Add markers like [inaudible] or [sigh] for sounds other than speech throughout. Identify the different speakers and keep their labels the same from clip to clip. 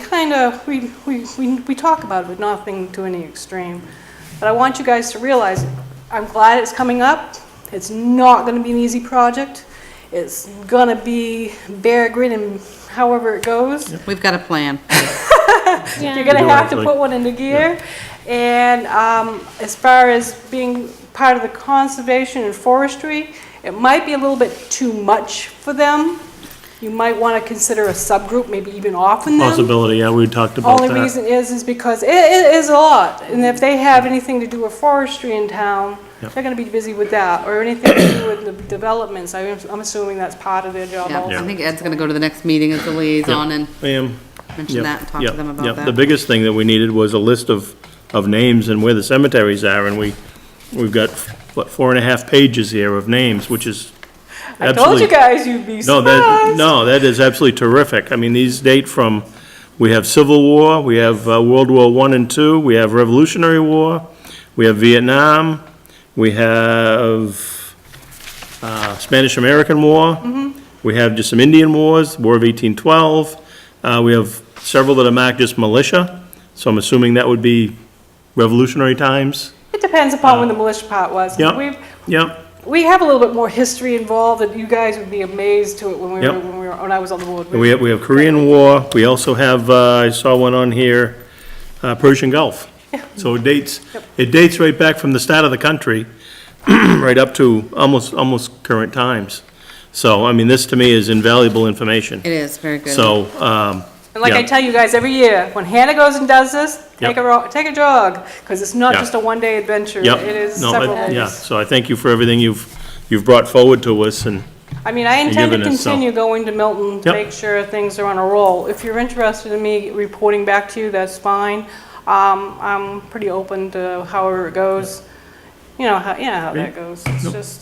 Speaker 1: kind of, we, we, we we talk about it, but nothing to any extreme. But I want you guys to realize, I'm glad it's coming up. It's not going to be an easy project. It's going to be bear grit and however it goes.
Speaker 2: We've got a plan.
Speaker 1: You're going to
Speaker 3: Yeah,
Speaker 1: have to
Speaker 3: like-
Speaker 1: put one into gear. And um, as far as being part of the conservation and forestry, it might be a little bit too much for them. You might want to consider a subgroup, maybe even
Speaker 3: Oh,
Speaker 1: often them.
Speaker 3: Possibility, yeah, we talked about
Speaker 1: Only
Speaker 3: that.
Speaker 1: reason is, is because it, it is a lot, and if they have anything to do with forestry in town,
Speaker 3: Yep.
Speaker 1: they're gonna be busy with that, or anything to do with the developments, I am, I'm assuming that's part of their job
Speaker 2: Yeah,
Speaker 1: also.
Speaker 2: I think Ed's gonna go to the next meeting as the liaison and
Speaker 3: Ma'am.
Speaker 2: mention that and talk to them about
Speaker 3: The
Speaker 2: that.
Speaker 3: biggest thing that we needed was a list of, of names and where the cemeteries are, and we, we've got, what, four and a half pages here of names, which is
Speaker 1: I told
Speaker 3: absolutely-
Speaker 1: you guys you'd be
Speaker 3: No, that,
Speaker 1: surprised.
Speaker 3: no, that is absolutely terrific. I mean, these date from, we have Civil War, we have uh, World War One and Two, we have Revolutionary War, we have Vietnam, we have uh, Spanish-American War, we have just some Indian wars, War of 1812, uh, we have several that are marked just militia, so I'm assuming that would be revolutionary times.
Speaker 1: It depends upon when the militia part was.
Speaker 3: Yep.
Speaker 1: We've,
Speaker 3: Yep,
Speaker 1: we have a little bit more history involved, that you guys would be amazed to it when we were,
Speaker 3: Yep.
Speaker 1: when we were, when I was on the board.
Speaker 3: and we have, we have Korean War, we also have, uh, I saw one on here, uh, Persian Gulf. So it dates, it dates right back from the start of the country, [clears throat] right up to almost, almost current times. So, I mean, this to me is invaluable information.
Speaker 2: It is, very good.
Speaker 3: So, um,
Speaker 1: And like I
Speaker 3: Yeah.
Speaker 1: tell you guys every year, when Hannah goes and does this, take
Speaker 3: Yep.
Speaker 1: a, ro- take a jog, because it's not
Speaker 3: Yeah.
Speaker 1: just a one-day adventure.
Speaker 3: yep.
Speaker 1: It is
Speaker 3: no, I-
Speaker 1: several days.
Speaker 3: Yeah, so I thank you for everything you've, you've brought forward to us, and
Speaker 1: I mean, I intend to
Speaker 3: giving us some-
Speaker 1: continue going to Milton to
Speaker 3: Yep.
Speaker 1: make sure things are on a roll. If you're interested in me reporting back to you, that's fine. Um, I'm pretty open to however it goes. You know, how, yeah, how that
Speaker 3: Great.
Speaker 1: goes. It's
Speaker 3: Nope.
Speaker 1: just,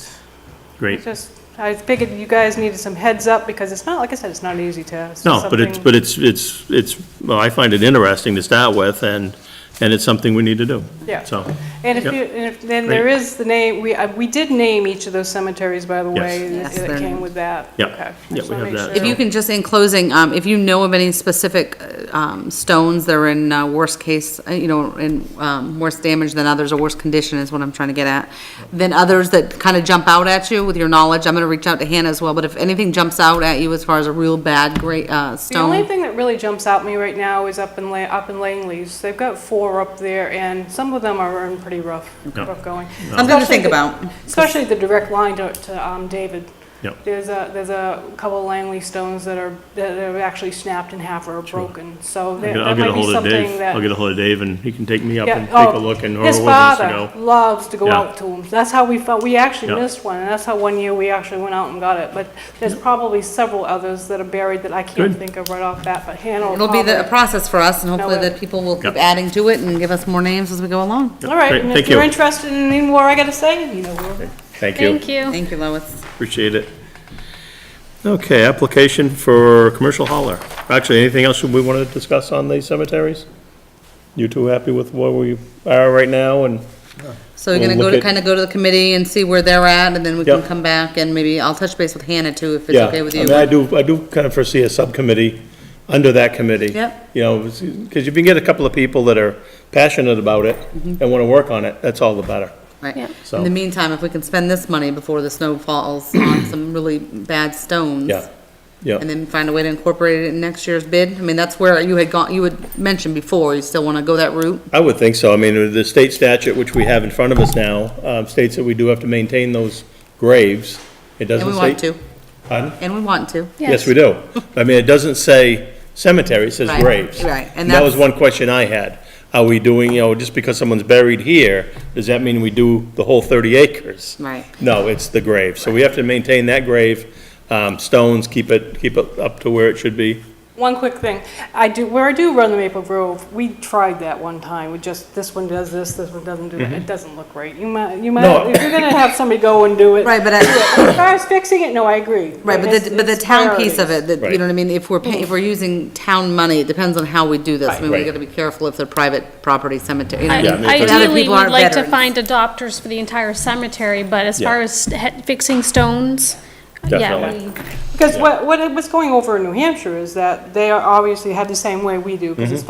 Speaker 3: great.
Speaker 1: it's just, I figured you guys needed some heads up because it's not, like I said, it's not easy to. it's
Speaker 3: No, but it's,
Speaker 1: something-
Speaker 3: but it's, it's, it's, well, I find it interesting to start with, and, and it's something we need to do.
Speaker 1: Yeah.
Speaker 3: So,
Speaker 1: And if
Speaker 3: Yep.
Speaker 1: you, and if, then there
Speaker 3: Great.
Speaker 1: is the name, we, uh, we did name each of those cemeteries, by the
Speaker 3: Yes.
Speaker 1: way,
Speaker 2: Yes,
Speaker 1: that
Speaker 2: they're
Speaker 1: that came
Speaker 2: named.
Speaker 1: with that.
Speaker 3: Yep.
Speaker 1: Okay. I
Speaker 3: Yep,
Speaker 1: just
Speaker 3: we
Speaker 1: wanna
Speaker 3: have
Speaker 1: make
Speaker 3: that.
Speaker 1: sure.
Speaker 2: If you can just, in closing, um, if you know of any specific, uh, um, stones that are in, uh, worst case, uh, you know, in, um, worse damage than others or worse condition is what I'm trying to get at, then others that kind of jump out at you with your knowledge, I'm gonna reach out to Hannah as well, but if anything jumps out at you as far as a real bad, great, uh,
Speaker 1: The only
Speaker 2: stone,
Speaker 1: thing that really jumps out at me right now is up in La, up in Langley's. They've got four up there, and some of them are in pretty rough,
Speaker 3: Yeah.
Speaker 1: rough going.
Speaker 2: something to
Speaker 1: Especially
Speaker 2: think
Speaker 1: the-
Speaker 2: about.
Speaker 1: Especially the direct line to, to, um, David.
Speaker 3: Yep.
Speaker 1: There's a, there's a couple of Langley stones that are, that are actually snapped in half or broken, so that
Speaker 3: I'll
Speaker 1: that
Speaker 3: get a
Speaker 1: might be
Speaker 3: hold of
Speaker 1: something
Speaker 3: Dave,
Speaker 1: that.
Speaker 3: I'll get a hold of Dave, and he can take me up
Speaker 1: Yeah,
Speaker 3: and
Speaker 1: oh,
Speaker 3: take a look, and or
Speaker 1: His
Speaker 3: where wants to
Speaker 1: father
Speaker 3: go.
Speaker 1: loves to go
Speaker 3: Yeah.
Speaker 1: out to them. That's how we felt, we actually
Speaker 3: Yeah.
Speaker 1: missed one, and that's how one year we actually went out and got it. But there's probably several others that are buried that I can't
Speaker 3: Good.
Speaker 1: think of right off that, but Hannah will
Speaker 2: It'll be the, a
Speaker 1: probably-
Speaker 2: process for us, and hopefully
Speaker 1: Now, uh,
Speaker 2: the people will keep
Speaker 3: Yeah.
Speaker 2: adding to it and give us more names as we go along.
Speaker 1: All right,
Speaker 3: Great,
Speaker 1: and if
Speaker 3: thank
Speaker 1: you're
Speaker 3: you.
Speaker 1: interested in any more I gotta say, you know, we're-
Speaker 3: Thank you,
Speaker 4: Thank you.
Speaker 2: Thank you, Lois.
Speaker 3: appreciate it. Okay, application for commercial hauler. Actually, anything else we want to discuss on these cemeteries? You two happy with where we are right now, and,
Speaker 2: So you're
Speaker 3: We'll
Speaker 2: gonna go
Speaker 3: look
Speaker 2: to,
Speaker 3: at-
Speaker 2: kinda go to the committee and see where they're at, and then we can
Speaker 3: Yep.
Speaker 2: come back, and maybe I'll touch base with Hannah too, if it's
Speaker 3: yeah.
Speaker 2: okay with
Speaker 3: I
Speaker 2: you.
Speaker 3: mean, I do, I do kind of foresee a subcommittee under that committee.
Speaker 2: Yep.
Speaker 3: You know, because you can get a couple of people that are passionate about it
Speaker 2: Mm-hmm.
Speaker 3: and want to work on it, that's all the better.
Speaker 2: Right.
Speaker 3: So-
Speaker 2: In the meantime, if we can spend this money before the snow falls on
Speaker 3: [clears throat]
Speaker 2: some really bad stones.
Speaker 3: Yeah, yeah.
Speaker 2: And then find a way to incorporate it in next year's bid. I mean, that's where you had gone, you had mentioned before, you still wanna go that route?
Speaker 3: I would think so. I mean, the state statute, which we have in front of us now, um, states that we do have to maintain those graves. It
Speaker 2: And
Speaker 3: doesn't
Speaker 2: we
Speaker 3: say.
Speaker 2: want to,
Speaker 3: Pardon?
Speaker 2: and we want to.
Speaker 3: Yes,
Speaker 2: [laughs]
Speaker 3: we do. I mean, it doesn't say cemetery, it says
Speaker 2: Right,
Speaker 3: graves.
Speaker 2: right, and
Speaker 3: That was
Speaker 2: that's-
Speaker 3: one question I had. Are we doing, you know, just because someone's buried here, does that mean we do the whole 30 acres?
Speaker 2: Right.
Speaker 3: No, it's the grave. So we have to maintain that grave, um, stones, keep it, keep it up to where it should be.
Speaker 1: One quick thing, I do, where I do run the Maple Grove, we tried that one time, we just, this one does this, this one doesn't do that, it doesn't look right. You might, you might,
Speaker 3: Mm-hmm. No.
Speaker 1: if you're gonna have somebody go and do it.
Speaker 2: Right, but I,
Speaker 1: As far as fixing it, no, I agree.
Speaker 2: Right, but the,
Speaker 1: it's-
Speaker 2: but the
Speaker 1: it's
Speaker 2: town piece of
Speaker 1: priorities.
Speaker 2: it, that, you
Speaker 3: Right.
Speaker 2: know what I mean, if we're paying, if we're using town money, it depends on how we do this. I mean, we
Speaker 3: Right.
Speaker 2: gotta be careful if they're private property cemetery. you know,
Speaker 4: I-
Speaker 3: Yeah, I mean,
Speaker 2: but other
Speaker 4: Ideally,
Speaker 2: people
Speaker 4: we'd
Speaker 2: aren't
Speaker 4: like to
Speaker 2: veterans.
Speaker 4: find adopters for the entire cemetery, but as
Speaker 3: Yeah.
Speaker 4: far as he- fixing stones,
Speaker 3: Definitely.
Speaker 4: Yeah, we-
Speaker 1: Because what, what it was going over in New Hampshire is that they are obviously had the same way we do, because it's